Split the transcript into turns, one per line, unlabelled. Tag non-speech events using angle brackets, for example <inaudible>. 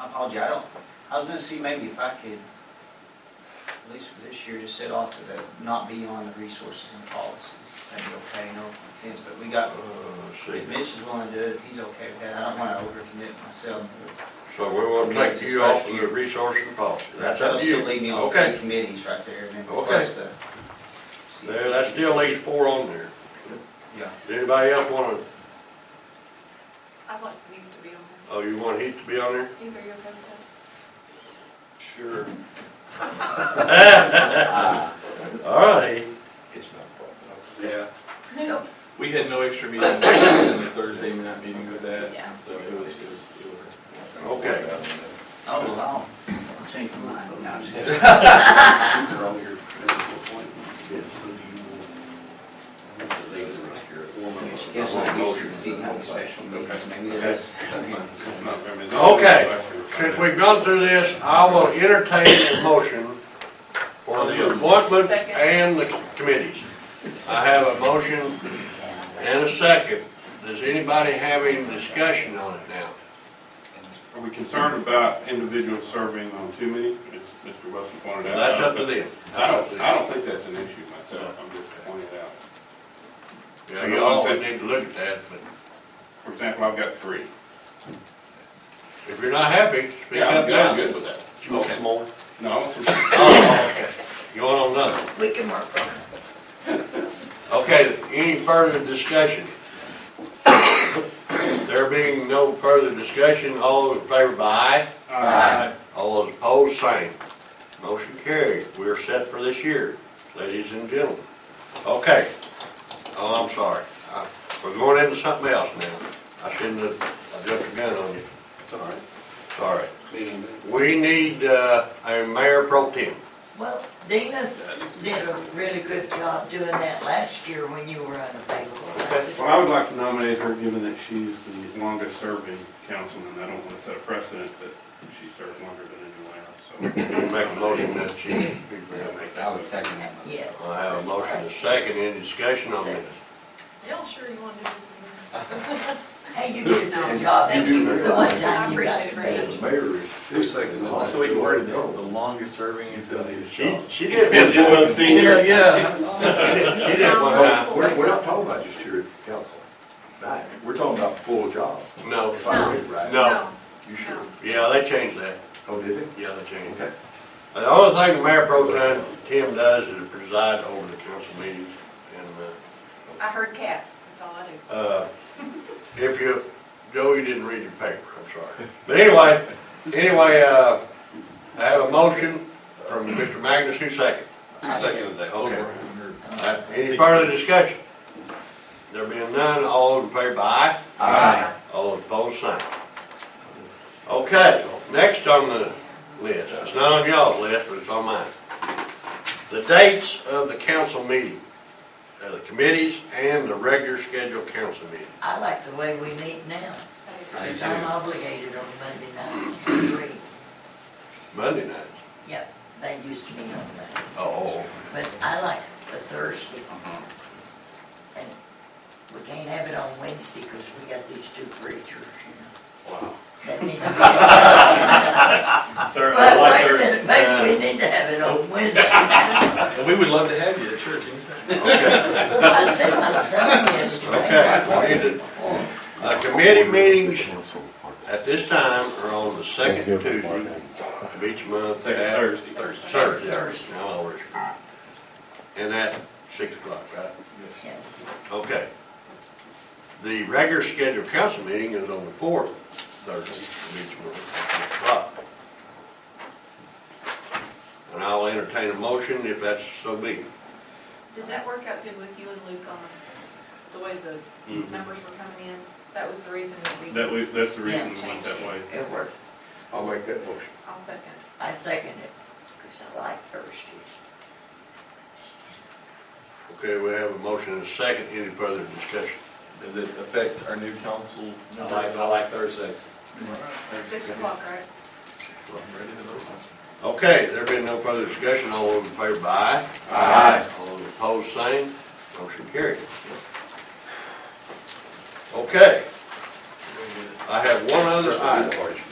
I apologize, I don't, I was gonna see maybe if I could, at least for this year, just set off to the, not be on the resources and policies. That'd be okay, no offense, but we got,
Uh, see,
if Mitch is willing to do it, if he's okay with that, I don't wanna overcommit myself.
so we will take you off of the resource and policy, that's up
That'll
to you.
still leave me on three
Okay,
committees right there, and then
Okay.
plus the.
there, that still leaves four on there.
Yeah.
Does Anybody else wanna,
I'd like Heath to be on there.
oh, you want Heath to be on there?
Heath, are you okay with
Sure.
All right,
It's not a
Yeah.
that?
We had no extra meeting on the Thursday night meeting with that,
Yeah.
so it was, it was, it was.
problem.
Okay.
Oh, wow. I'll change my mind. No, I'm just kidding.
These are all your medical appointments. Who do you want? Leave the rest of your appointments.
Yes, <laughs> I used to see how special meetings, maybe there's.
okay, since we've gone through this, I will entertain a motion for the appointments
Second.
and the committees. I have a motion and a second, does anybody have any discussion on it now?
Are we concerned about individuals serving on too many, as Mr. Wilson pointed out?
That's up to them.
I don't, I don't think that's an issue myself, I'm just pointing it out.
Yeah, you always need to look at that, but
For example, I've got three.
if you're not happy, speak
Yeah, I'm
up
good- I'm
now.
good with that.
You want some more?
No, I want some-
Oh, okay. You want on nothing?
We can work on it.
Okay, any further discussion? There being no further discussion, all those in favor by aye,
Aye.
all those opposed, same. Motion carried, we're set for this year, ladies and gentlemen. Okay, oh, I'm sorry, I- we're going into something else now. I shouldn't have, I jumped the gun on you,
It's all right.
sorry.
Meeting day.
We need, uh, a mayor pro tem.
Well, Dina's did a really good job doing that last year when you were unavailable. That's
Well, I would like to nominate her, given that she's the longest serving councilman, I don't want to set a precedent that she served longer than anyone
<laughs>
else, so.
Make a motion that she,
I would second that.
it. Yes.
I have a motion to second, any discussion on this?
Y'all sure you want to do this?
Hey, you did a good job.
You do.
The one
I
time you got
appreciate it very much.
to me.
The mayor is.
Who's second? Also, we worded it, the longest serving is the leadership.
She, she did one time,
Senior?
Yeah.
she did one time,
We're, we're not talking about just here at the council, right? We're talking about full jobs.
no,
If I read right.
No.
You sure?
yeah, they changed that,
Oh, did it?
yeah, they changed
Okay.
that. The only thing the mayor pro tem, Tim does is preside over the council meetings, and,
I heard cats, that's all I do.
uh, uh, if you, Joe, you didn't read your paper, I'm sorry. But anyway, anyway, uh, I have a motion from Mr. Magnus, who second?
Second of that.
Okay. Uh, Any further discussion? There being none, all in favor, aye?
Aye.
All opposed, sign. Okay, next on the list, it's not on y'all's list, but it's on mine. The dates of the council meeting, uh, the committees and the regular scheduled council meeting.
I like the way we meet now.
I do.
Because I'm obligated on Monday nights for free.
Monday nights.
Yep, they used to be on that.
Oh,
But I like the Thursday. And we can't have it on Wednesday because we got these two preachers, you know.
wow.
that <laughs> need to be-
Sir, I
But
like
wait a
her. uh,
minute, maybe we need to have it on
<laughs>
Wednesday.
And we would love to have you at church anytime.
Okay,
I said my son yesterday.
okay. we need to- The committee meetings at this time are on the second Tuesday of each month.
Second
at-
Thursday.
Thursday, Thursday, I'll always. And at six o'clock, right?
Yes.
Okay. The regular scheduled council meeting is on the fourth Thursday of each month, at six o'clock. And I'll entertain a motion if that's so be.
Did that work out good with you and Luke on the way the
Mm-hmm.
Mhm.
numbers were coming in? That was the reason that we.
That was, that's the reason we went that way.
It worked.
I'll make that motion.
I'll second.
I second it because I like Thursdays.
Okay, we have a motion and a second, any further discussion?
Does it affect our new council?
I like, I like Thursdays.
Six o'clock, right?
Okay, there being no further discussion, all those in favor, by aye?
Aye.
All those opposed, same, motion carried. Okay, I have one other item.